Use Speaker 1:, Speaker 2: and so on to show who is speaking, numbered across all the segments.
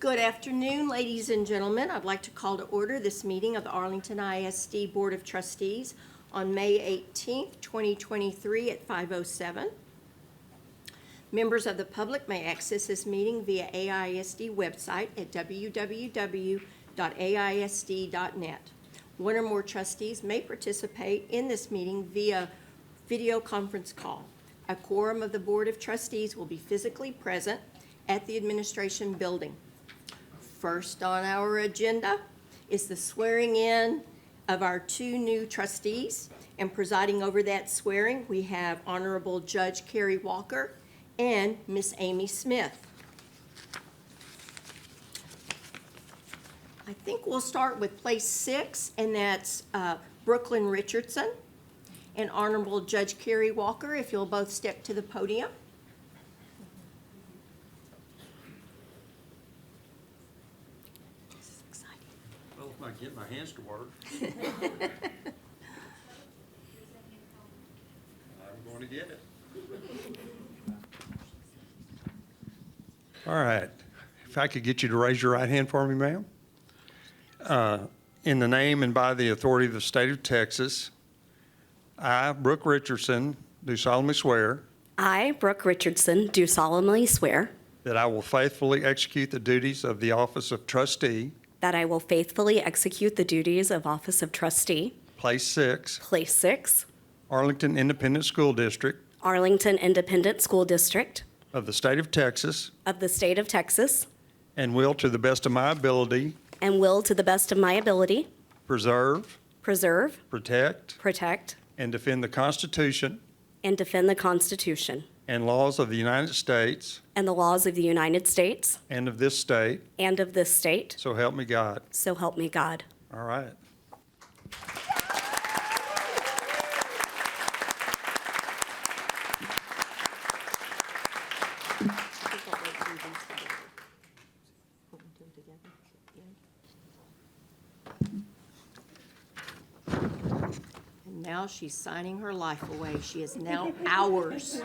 Speaker 1: Good afternoon, ladies and gentlemen. I'd like to call to order this meeting of the Arlington ISD Board of Trustees on May 18th, 2023 at 5:07. Members of the public may access this meeting via AISD website at www.aisd.net. One or more trustees may participate in this meeting via video conference call. A quorum of the Board of Trustees will be physically present at the Administration Building. First on our agenda is the swearing in of our two new trustees. And presiding over that swearing, we have Honorable Judge Carrie Walker and Miss Amy Smith. I think we'll start with place six, and that's uh, Brooklyn Richardson. And Honorable Judge Carrie Walker, if you'll both step to the podium. This is exciting.
Speaker 2: Well, if I can get my hands to work. I'm going to get it. All right. If I could get you to raise your right hand for me, ma'am. Uh, In the name and by the authority of the state of Texas, I, Brooke Richardson, do solemnly swear
Speaker 3: I, Brooke Richardson, do solemnly swear
Speaker 2: that I will faithfully execute the duties of the office of trustee,
Speaker 3: that I will faithfully execute the duties of Office of Trustee,
Speaker 2: Place Six,
Speaker 3: Place 6,
Speaker 2: Arlington Independent School District
Speaker 3: Arlington Independent School District
Speaker 2: of the state of Texas,
Speaker 3: of the State of Texas,
Speaker 2: And will, to the best of my ability,
Speaker 3: and will, to the best of my ability,
Speaker 2: preserve,
Speaker 3: preserve,
Speaker 2: protect,
Speaker 3: protect,
Speaker 2: and defend the Constitution
Speaker 3: and defend the Constitution
Speaker 2: and laws of the United States
Speaker 3: and the laws of the United States
Speaker 2: and of this state.
Speaker 3: and of this state.
Speaker 2: So help me God.
Speaker 3: So help me God.
Speaker 2: All right.
Speaker 1: I think I'll wait and do these together. Want to do them together? Yeah. And now she's signing her life away. She is now ours.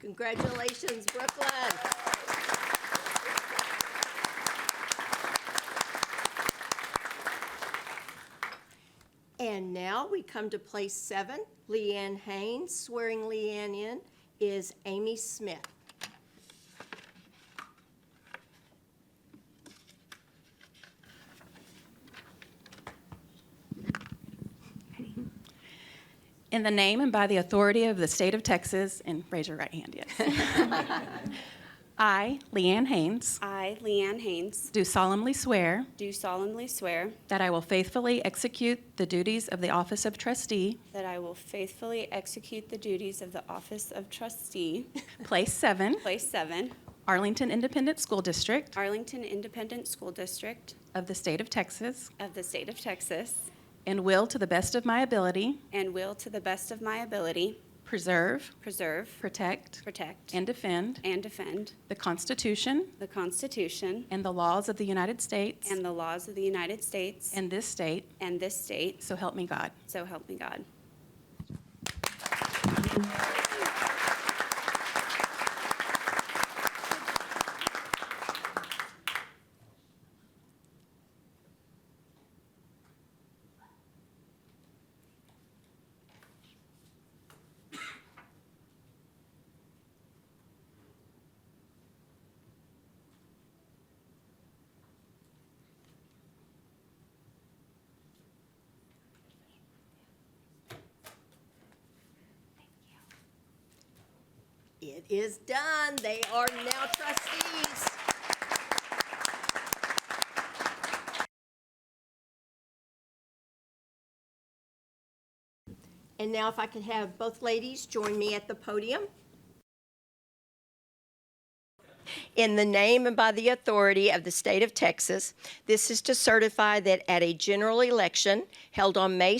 Speaker 1: Congratulations, Brooklyn. And now we come to place seven, Leanne Haynes. Swearing Leanne in is Amy Smith.
Speaker 4: In the name and by the authority of the state of Texas, and raise your right hand, yes. I, Leanne Haynes,
Speaker 5: I, Leanne Haynes,
Speaker 4: do solemnly swear
Speaker 5: do solemnly swear
Speaker 4: that I will faithfully execute the duties of the office of trustee,
Speaker 5: that I will faithfully execute the duties of the Office of Trustee,
Speaker 4: Place 7,
Speaker 5: Place 7,
Speaker 4: Arlington Independent School District
Speaker 5: Arlington Independent School District
Speaker 4: of the state of Texas,
Speaker 5: of the State of Texas,
Speaker 4: and will, to the best of my ability,
Speaker 5: and will, to the best of my ability,
Speaker 4: preserve,
Speaker 5: preserve,
Speaker 4: protect,
Speaker 5: protect,
Speaker 4: and defend
Speaker 5: and defend
Speaker 4: the Constitution
Speaker 5: the Constitution
Speaker 4: and the laws of the United States
Speaker 5: and the laws of the United States
Speaker 4: and this state,
Speaker 5: and this state,
Speaker 4: so help me God.
Speaker 5: so help me God.
Speaker 1: It is done. They are now trustees. And now if I could have both ladies join me at the podium. In the name and by the authority of the state of Texas, this is to certify that at a general election held on May